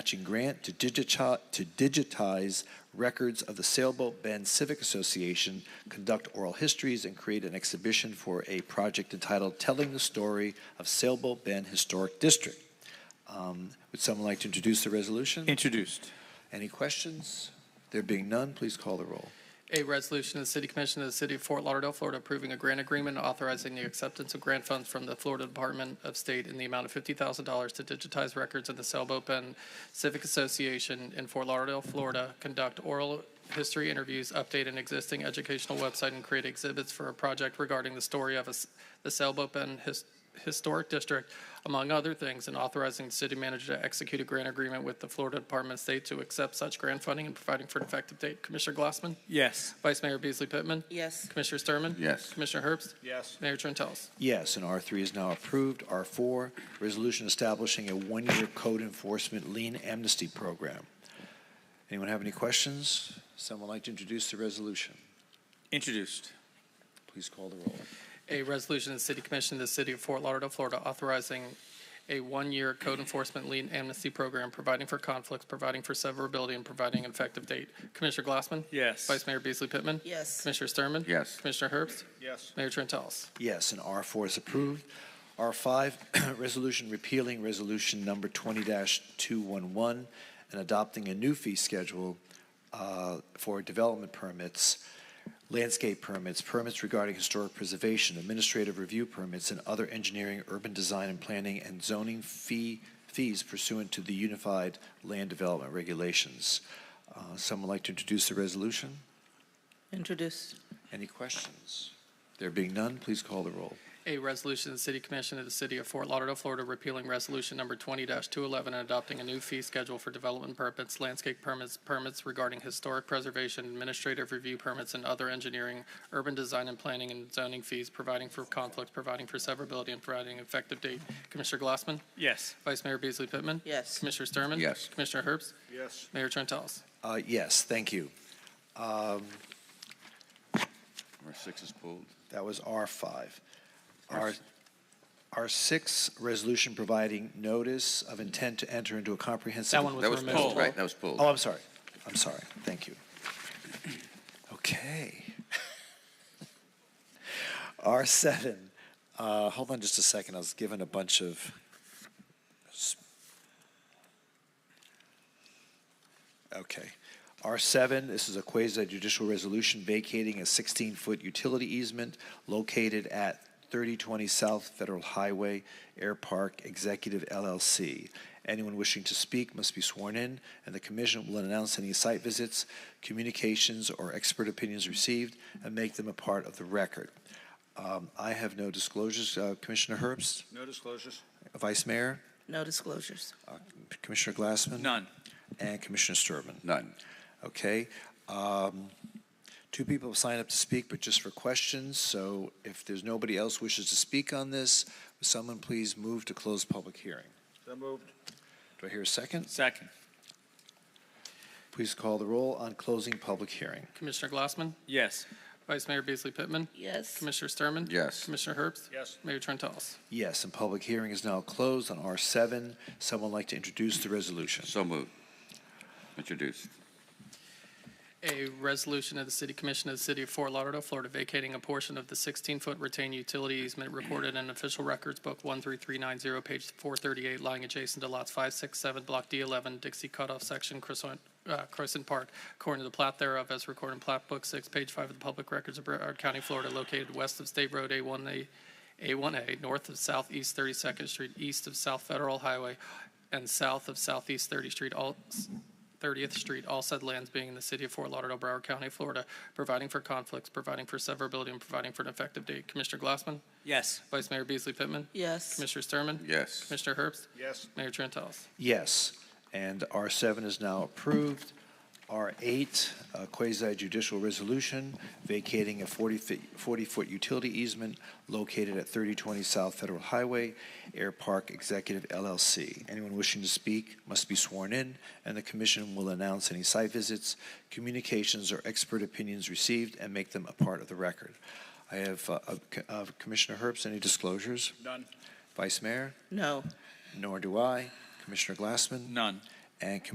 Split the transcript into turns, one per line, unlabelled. matching grant to digitize, to digitize records of the Sailboat Bend Civic Association, conduct oral histories, and create an exhibition for a project entitled Telling the Story of Sailboat Bend Historic District. Um, Would someone like to introduce the resolution?
Introduced.
Any questions? There being none, please call the roll.
A resolution of the City Commission of the City of Fort Lauderdale, Florida, approving a grant agreement authorizing the acceptance of grant funds from the Florida Department of State in the amount of fifty thousand dollars to digitize records of the Sailboat Bend Civic Association in Fort Lauderdale, Florida, conduct oral history interviews, update an existing educational website, and create exhibits for a project regarding the story of a s- the Sailboat Bend His- Historic District, among other things, and authorizing the city manager to execute a grant agreement with the Florida Department of State to accept such grant funding and providing for an effective date. Commissioner Glassman?
Yes.
Vice Mayor Beasley Pittman.
yes,
Commissioner Sturman.
Yes.
Commissioner Herbst.
Yes.
Mayor Trentalles.
Yes, and R3 is now approved. R4, resolution establishing a one-year code enforcement lien amnesty program. Anyone have any questions? Someone like to introduce the resolution?
Introduced.
Please call the roll.
A resolution of the City Commission of the City of Fort Lauderdale, Florida, authorizing a one-year code enforcement lien amnesty program, providing for conflicts, providing for severability, and providing an effective date. Commissioner Glassman.
Yes.
Vice Mayor Beasley Pittman.
yes,
Commissioner Sturman.
Yes.
Commissioner Herbst.
Yes.
Mayor Trentalles.
Yes, and R4 is approved. R5, resolution repealing Resolution Number 20-211 and adopting a new fee schedule uh, for development permits, landscape permits, permits regarding historic preservation, administrative review permits, and other engineering, urban design, and planning and zoning fee, fees pursuant to the Unified Land Development Regulations. Uh, Someone like to introduce the resolution?
introduce,
Any questions? There being none, please call the roll.
A resolution of the City Commission of the City of Fort Lauderdale, Florida, repealing Resolution Number 20-211 and adopting a new fee schedule for development permits, landscape permits, permits regarding historic preservation, administrative review permits, and other engineering, urban design and planning and zoning fees, providing for conflicts, providing for severability, and providing an effective date. Commissioner Glassman?
Yes.
Vice Mayor Beasley Pittman?
yes,
Commissioner Sturman?
Yes.
Commissioner Herbst?
Yes.
Mayor Trentalles?
Uh, Yes, thank you. Um,
Number six is pulled.
That was R5. R, R6, resolution providing notice of intent to enter into a comprehensive.
That one was
That was pulled,
removed.
right? That was pulled.
Oh, I'm sorry. I'm sorry. Thank you. Okay. R7, uh, hold on just a second. I was given a bunch of. s- Okay. R7, this is a quasi judicial resolution vacating a 16 foot utility easement located at 3020 South Federal Highway, Air Park Executive LLC. Anyone wishing to speak must be sworn in, and the commission will announce any site visits, communications, or expert opinions received and make them a part of the record. Um, I have no disclosures. Uh, Commissioner Herbst,
No disclosures.
Vice Mayor,
no disclosures,
uh, Commissioner Glassman,
None.
and Commissioner Sturman.
None.
Okay. Um, Two people have signed up to speak, but just for questions. So if there's nobody else wishes to speak on this, would someone please move to close public hearing?
So moved.
Do I hear a second?
Second.
Please call the roll on closing public hearing.
Commissioner Glassman?
Yes.
Vice Mayor Beasley Pittman?
yes,
Commissioner Sturman?
Yes.
Commissioner Herbst?
Yes.
Mayor Trentalles?
Yes, and public hearing is now closed on R7. Someone like to introduce the resolution?
So moved. Introduced.
A resolution of the City Commission of the City of Fort Lauderdale, Florida, vacating a portion of the 16-foot retained utility easement reported in Official Records Book 13390, page 438, lying adjacent to lots 5, 6, 7, Block D11, Dixie Cutoff Section, Crescent uh, Crescent Park, according to the plat thereof as recorded in Plat Book 6, page 5 of the Public Records of Brevard County, Florida, located west of State Road A1A, A1A, north of Southeast 32nd Street, east of South Federal Highway, and south of Southeast 30th Street, all 30th Street, all said lands being in the city of Fort Lauderdale, Broward County, Florida, providing for conflicts, providing for severability, and providing for an effective date. Commissioner Glassman?
Yes.
Vice Mayor Beasley Pittman?
yes,
Commissioner Sturman?
Yes.
Commissioner Herbst?
Yes.
Mayor Trentalles?
Yes, and R7 is now approved. R8, uh, quasi-judicial resolution vacating a 40-foot utility easement located at 3020 South Federal Highway, Air Park Executive LLC. Anyone wishing to speak must be sworn in, and the commission will announce any site visits, communications, or expert opinions received and make them a part of the record. I have uh, uh, C- uh, Commissioner Herbst, any disclosures?
None.
Vice Mayor?
no,
Nor do I. Commissioner Glassman?
None.
and